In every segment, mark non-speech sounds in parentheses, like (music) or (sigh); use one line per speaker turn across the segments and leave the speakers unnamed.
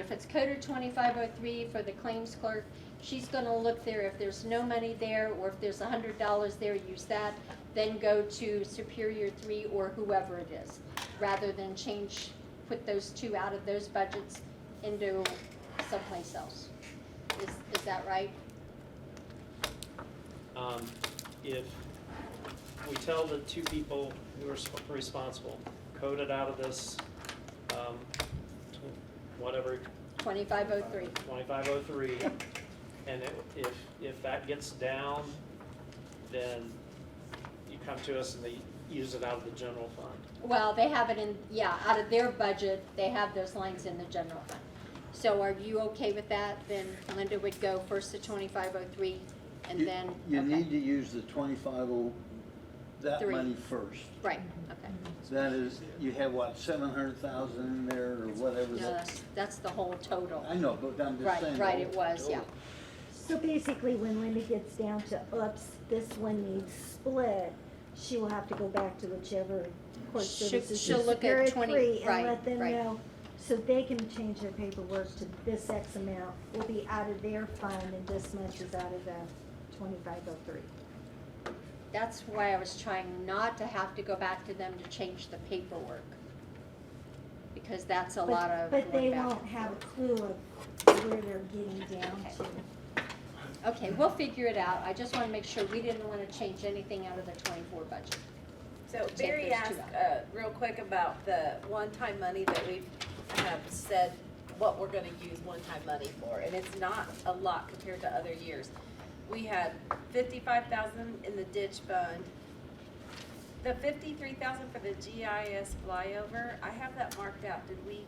If it's coded twenty-five oh three for the claims clerk, she's gonna look there, if there's no money there, or if there's a hundred dollars there, use that, then go to Superior Three or whoever it is, rather than change, put those two out of those budgets into someplace else. Is, is that right?
Um, If we tell the two people who are sp- responsible, code it out of this, um, tw- whatever,
Twenty-five oh three.
twenty-five oh three, and it- if, if that gets down, then you come to us and they use it out of the general fund.
Well, they have it in, yeah, out of their budget, they have those lines in the general fund. So are you okay with that? Then Linda would go first to twenty-five oh three, and
You-
then,
You
okay.
need to use the twenty-five oh, that
Three.
money first.
Right, okay.
That is, you have what, seven hundred thousand in there or whatever
No,
that.
that's, that's the whole total.
Mm-hmm. I know, but I'm just saying.
Right, right,
the
it was, yeah.
total.
So basically, when Linda gets down to oops, this one needs split, she will have to go back to whichever court
She'll-
services is
she'll look at
superior
20
three
right,
and let them
right.
know, so they can change their paperwork to this X amount will be out of their fund and this much is out of the twenty-five oh three.
That's why I was trying not to have to go back to them to change the paperwork. Because that's a lot of
But they
going back.
won't have a clue of where they're getting down
Okay.
to.
Okay, we'll figure it out. I just wanna make sure we didn't wanna change anything out of the twenty-four budget.
So
Take
Barry
those two
asked, uh, real quick about the one-time money that we have said what we're gonna use one-time money for, and it's not a lot compared to other years. We had fifty-five thousand in the ditch fund. The fifty-three thousand for the GIS flyover, I have that marked out, did we,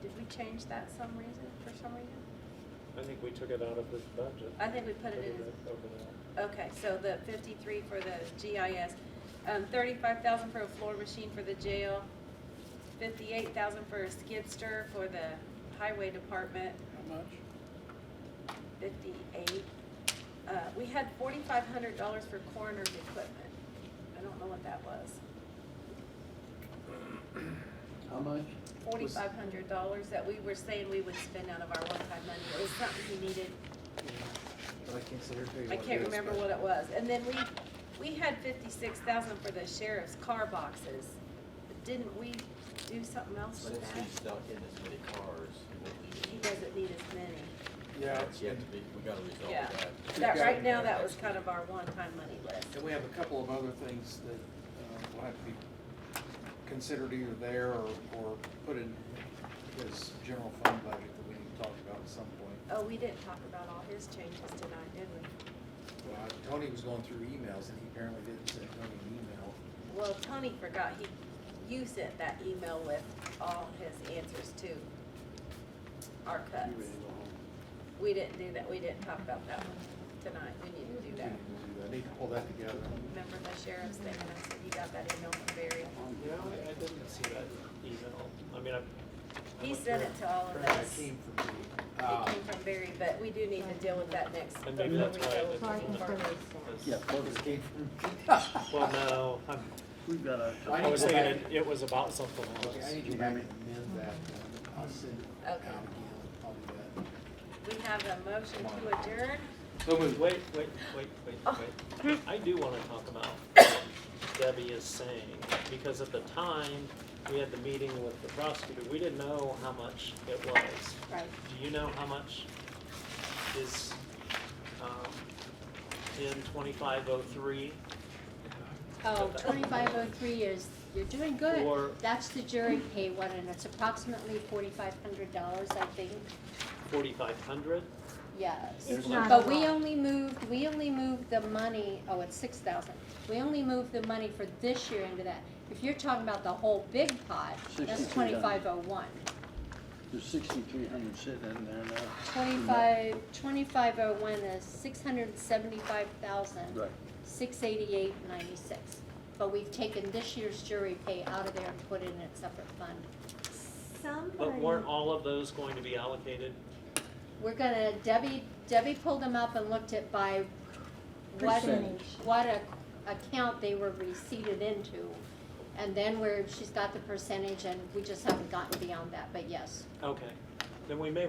did we change that some reason, for some reason?
I think we took it out of this budget.
I think we put it in as
Over there.
Okay, so the fifty-three for the GIS, um, thirty-five thousand for a floor machine for the jail, fifty-eight thousand for a skidster for the highway department,
How much?
fifty-eight. Uh, we had forty-five hundred dollars for coroner's equipment. I don't know what that was.
How much?
Forty-five hundred dollars that we were saying we would spend out of our one-time money. It was something we needed.
I can't sit here and tell you
I
what it
can't
is,
remember
but-
what it was. And then we, we had fifty-six thousand for the sheriff's car boxes. Didn't we do something else with
Since he's
that?
not in as many cars, he won't need
He
it.
doesn't need as many.
Yeah,
That's yet to be, we gotta resolve
Yeah.
that.
That,
got
right
it.
now, that was kind of our one-time money list.
and we have a couple of other things that uh, will have to be considered either there or, or put in his general fund budget that we need to talk about at some point.
Oh, we didn't talk about all his changes tonight, did we?
Well, Tony was going through emails and he apparently didn't send Tony an email.
Well, Tony forgot, he, you sent that email with all his answers to our
He
cuts.
really don't-
We didn't do that, we didn't talk about that one tonight, we need to do
he
that.
didn't do that. I need to pull that together.
Remember the sheriff's thing, and I said, you got that email from Barry?
You know, I I didn't see that email. I mean, I. I
He
went
sent
through
it to all of
Apparently
us.
it
It
came from me. Uh, (laughs)
came from Barry, but we do need to deal with that next.
And maybe that's why I didn't-
Parking
Farmers.
this.
Yeah, well, it came from,
Well, no, I'm-
we've got a.
I
I was
need to go
thinking
back-
Oh, it- it was about something
Okay, I
else.
need to go back and amend that. uh, I'll send it out
Okay.
again. I'll do that.
We have a motion to adjourn.
So moved.
Wait, wait, wait, wait, wait. I do wanna talk about what Debbie is saying, because at the time, we had the meeting with the prosecutor, we didn't know how much it was.
Right.
Do you know how much is, um, in twenty-five oh three?
Oh, twenty-five oh three is, you're doing good.
Or-
That's the jury pay one, and it's approximately forty-five hundred dollars, I think,
Forty-five hundred?
yes.
It's
But
not a
But we
lot.
only moved, we only moved the money, oh, it's six thousand. We only moved the money for this year into that. If you're talking about the whole big pot, that's
62,000.
twenty-five oh one.
There's sixty-three hundred sitting in there now.
Twenty-five, twenty-five oh one is six hundred and seventy-five thousand,
Right.
six eighty-eight ninety-six. But we've taken this year's jury pay out of there and put it in a separate fund.
Somebody.
But weren't all of those going to be allocated?
We're gonna, Debbie, Debbie pulled them up and looked at by what,
Percentage.
what a, account they were receipted into. And then where she's got the percentage and we just haven't gotten beyond that, but yes,
Okay, then we may